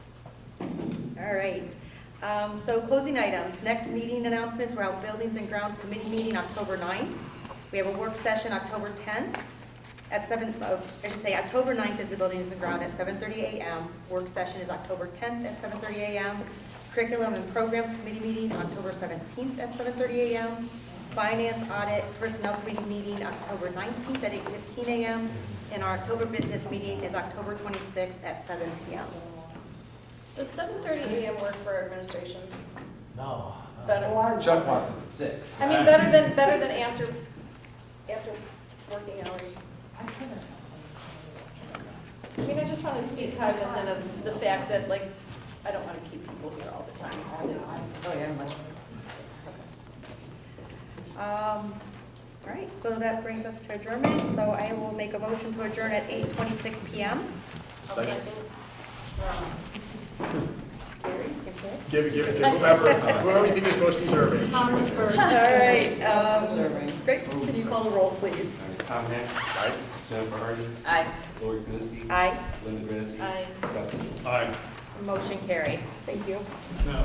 All right. Um, So closing items, next meeting announcements, we're out Buildings and Grounds Committee meeting October 9th. We have a work session October 10th at 7, oh, I should say, October 9th is the Buildings and Ground at 7:30 a.m. Work session is October 10th at 7:30 a.m. Curriculum and Program Committee meeting October 17th at 7:30 a.m. Finance Audit Personnel Committee meeting October 19th at 8:15 a.m. And our October business meeting is October 26th at 7 p.m. Does seven thirty AM work for administration? No. Better, Chuck wants it at six. I mean, better than, better than after, after working hours. I mean, I just want to be cognizant of the fact that, like, I don't want to keep people here all the time. Oh, yeah, much. Um, All right, so that brings us to adjournment. So I will make a motion to adjourn at 8:26 p.m. Gary, you good? Give it, give it to whomever, whoever you think is most deserving. Commerce first. All right. um, Great, can you call the roll, please? Tom Heck. Aye. Jennifer Hardy. Aye. Lori Kniske. Aye, Linda Grassi. Aye. Scott Fishel. Aye. motion carried. Thank you.